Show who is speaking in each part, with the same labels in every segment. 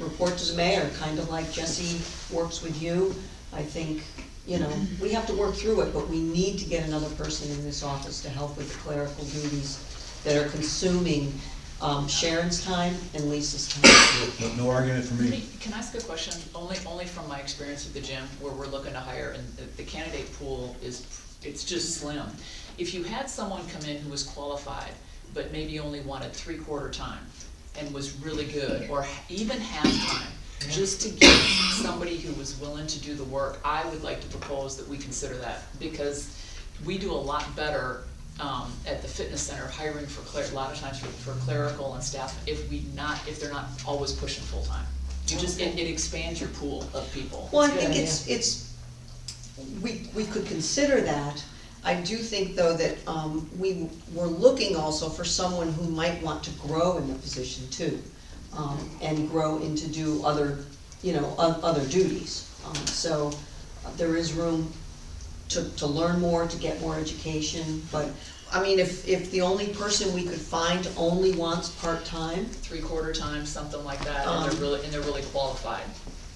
Speaker 1: report to the mayor, kind of like Jesse works with you. I think, you know, we have to work through it, but we need to get another person in this office to help with the clerical duties that are consuming um, Sharon's time and Lisa's time.
Speaker 2: No- No argument for
Speaker 3: Can
Speaker 2: me.
Speaker 3: can I ask a question, only, only from my experience at the gym, where we're looking to hire, and the- the candidate pool is, it's just slim. If you had someone come in who was qualified, but maybe only wanted three-quarter time, and was really good, or even half-time, just to get somebody who was willing to do the work, I would like to propose that we consider that, because we do a lot better, um, at the fitness center, hiring for cler, a lot of times for for clerical and staff, if we not, if they're not always pushing full-time. You just, it, it expands your pool of people.
Speaker 1: Well, I think it's, it's, we, we could consider that. I do think, though, that um, we were looking also for someone who might want to grow in the position too, um, and grow into do other, you know, o- other duties. Um, So uh, there is room to, to learn more, to get more education, but, I mean, if, if the only person we could find only wants part-time,
Speaker 3: Three-quarter time, something like that, and
Speaker 1: Um.
Speaker 3: they're really, and they're really qualified,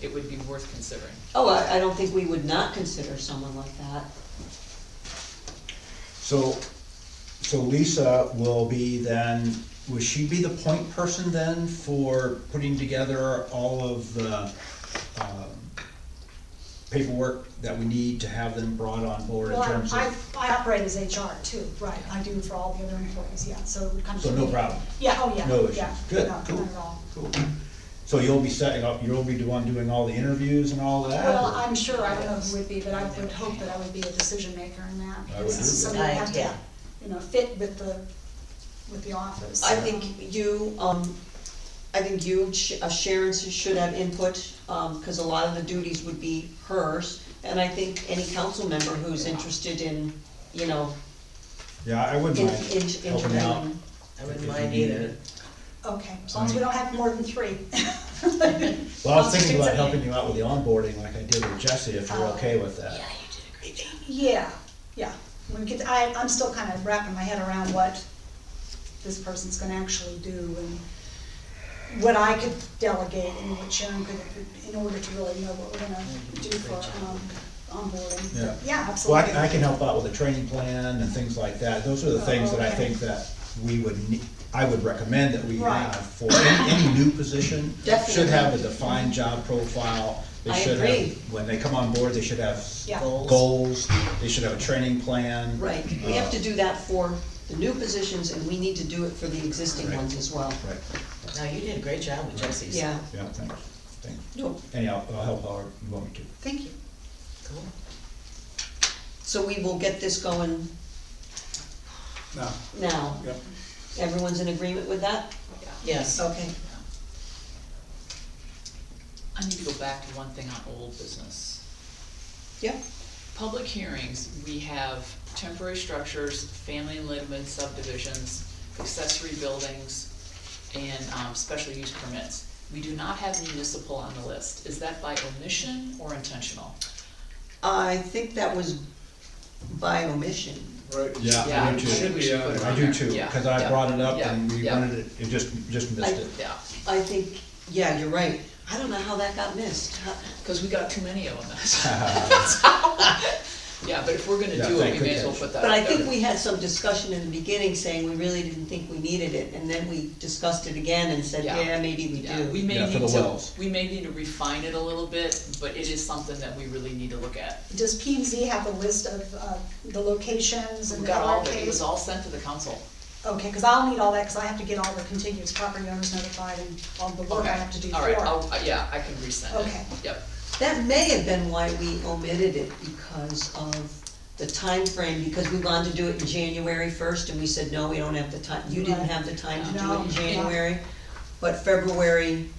Speaker 3: it would be worth considering.
Speaker 1: oh, I, I don't think we would not consider someone like that.
Speaker 2: So, so Lisa will be then, will she be the point person then for putting together all of the um, paperwork that we need to have them brought on board in
Speaker 4: Well,
Speaker 2: terms
Speaker 4: I,
Speaker 2: of,
Speaker 4: I operate as HR too, right, I do for all the other employees, yeah, so it would kind of.
Speaker 2: so no problem?
Speaker 4: Yeah, oh, yeah, yeah.
Speaker 2: No issue. Good,
Speaker 4: no,
Speaker 2: cool.
Speaker 4: Not at all.
Speaker 2: Cool. So you'll be setting up, you'll be the one doing all the interviews and all that?
Speaker 4: Well,
Speaker 2: or-
Speaker 4: I'm sure I don't know who would be, but I would hope that I would be a decision maker in that.
Speaker 2: I would
Speaker 4: This is
Speaker 2: do
Speaker 4: something that
Speaker 1: that.
Speaker 4: have
Speaker 1: Right,
Speaker 4: to,
Speaker 1: yeah.
Speaker 4: you know, fit with the, with the office.
Speaker 1: I think you, um, I think you, Sh- uh, Sharon sh- should have input, um, cause a lot of the duties would be hers. And I think any council member who's interested in, you know,
Speaker 2: Yeah, I wouldn't
Speaker 1: in,
Speaker 2: mind
Speaker 1: in,
Speaker 2: helping out.
Speaker 1: interviewing.
Speaker 5: I
Speaker 2: if
Speaker 5: wouldn't
Speaker 2: you
Speaker 5: mind
Speaker 2: needed
Speaker 5: either.
Speaker 2: it.
Speaker 4: Okay, as long as we don't have more than three.
Speaker 2: Well, I was thinking about helping you out with the onboarding like I did with Jesse, if you're okay with that.
Speaker 4: Yeah, yeah, when we get, I, I'm still kind of wrapping my head around what this person's gonna actually do and what I could delegate and what Sharon could, in order to really know what we're gonna do for, um, onboarding.
Speaker 2: Yeah.
Speaker 4: Yeah,
Speaker 2: Well,
Speaker 4: absolutely.
Speaker 2: I can, I can help out with a training plan and things like that, those are the things
Speaker 1: Oh,
Speaker 2: that I
Speaker 4: Okay.
Speaker 2: think that we would need, I would recommend that we
Speaker 4: Right.
Speaker 2: have for any, any new position. Should
Speaker 1: Definitely.
Speaker 2: have a defined job profile, they
Speaker 1: I
Speaker 2: should
Speaker 1: agree.
Speaker 2: have, when they come on board, they should have
Speaker 4: Yeah.
Speaker 5: Goals.
Speaker 2: goals, they should have a training plan.
Speaker 1: Right, we have to
Speaker 2: Uh,
Speaker 1: do that for the new positions and we need to do it for the existing
Speaker 2: Right.
Speaker 1: ones as well.
Speaker 2: Uh, Right,
Speaker 5: No, you did a great job with Jesse's.
Speaker 1: Yeah,
Speaker 2: yeah, thanks, thanks,
Speaker 1: no,
Speaker 2: anyhow, I'll help however you want me to.
Speaker 1: thank you.
Speaker 5: Cool.
Speaker 1: So we will get this going
Speaker 6: No,
Speaker 1: now.
Speaker 6: Yep.
Speaker 1: Everyone's in agreement with that?
Speaker 5: Yes.
Speaker 1: Okay.
Speaker 3: I need to go back to one thing on old business.
Speaker 1: Yep.
Speaker 3: Public hearings, we have temporary structures, family and limited subdivisions, accessory buildings, and, um, special use permits. We do not have municipal on the list. Is that by omission or intentional?
Speaker 1: I think that was by omission.
Speaker 6: right.
Speaker 2: Yeah,
Speaker 3: Yeah,
Speaker 2: I do
Speaker 3: I think
Speaker 2: too,
Speaker 3: we should uh, put it
Speaker 2: I
Speaker 3: on
Speaker 2: do
Speaker 3: there.
Speaker 2: too,
Speaker 3: Yeah,
Speaker 2: cause I
Speaker 3: yeah,
Speaker 2: brought it up
Speaker 3: yeah,
Speaker 2: and we
Speaker 3: yeah.
Speaker 2: wanted it, it just, just
Speaker 1: I-
Speaker 2: missed it.
Speaker 3: Yeah,
Speaker 1: I think, yeah, you're right. I don't know how that got missed. How-
Speaker 3: cause we got too many of them. Yeah, but if we're gonna
Speaker 2: Yeah,
Speaker 3: do it,
Speaker 2: thank
Speaker 3: we may as well
Speaker 2: goodness.
Speaker 3: put that
Speaker 1: But I
Speaker 3: out there.
Speaker 1: think we had some discussion in the beginning saying we really didn't think we needed it, and then we discussed it again and said,
Speaker 3: Yeah.
Speaker 1: yeah, maybe we
Speaker 3: Yeah, we
Speaker 1: do.
Speaker 3: may
Speaker 2: Yeah, for
Speaker 3: need
Speaker 2: the
Speaker 3: to,
Speaker 2: wells.
Speaker 3: we may need to refine it a little bit, but it is something that we really need to look at.
Speaker 4: Does P and Z have a list of, uh, the locations and
Speaker 3: We
Speaker 4: the
Speaker 3: got all, of it It was
Speaker 4: RKs?
Speaker 3: all sent to the council.
Speaker 4: Okay, cause I'll need all that, cause I have to get all the contiguous property owners notified and all the work I have to do for
Speaker 3: All right,
Speaker 4: it.
Speaker 3: I'll, uh, yeah, I can resend it.
Speaker 4: Okay.
Speaker 3: Yep,
Speaker 1: That may have been why we omitted it because of the time frame. because we wanted to do it in January first, and we said, no, we don't have the time, you didn't
Speaker 4: Right.
Speaker 1: have the time to do it
Speaker 4: No,
Speaker 1: in
Speaker 4: yeah.
Speaker 1: January. But February,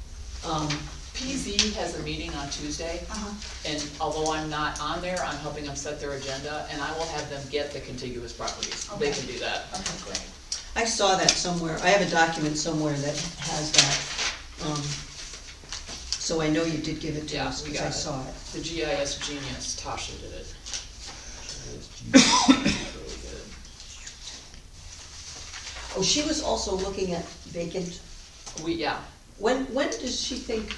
Speaker 1: um,
Speaker 3: PZ has a meeting on Tuesday,
Speaker 4: Uh-huh.
Speaker 3: and although I'm not on there, I'm helping them set their agenda, and I will have them get the contiguous properties. They
Speaker 4: Okay.
Speaker 3: can do that.
Speaker 4: Okay, great.
Speaker 1: I saw that somewhere, I have a document somewhere that has that. um, So I know you did give it to
Speaker 3: Yeah,
Speaker 1: us,
Speaker 3: we
Speaker 1: because
Speaker 3: got
Speaker 1: I
Speaker 3: it.
Speaker 1: saw it.
Speaker 3: The GIS genius, Tasha did it. Really good.
Speaker 1: Oh, she was also looking at vacant,
Speaker 3: We, yeah,
Speaker 1: when, when does she think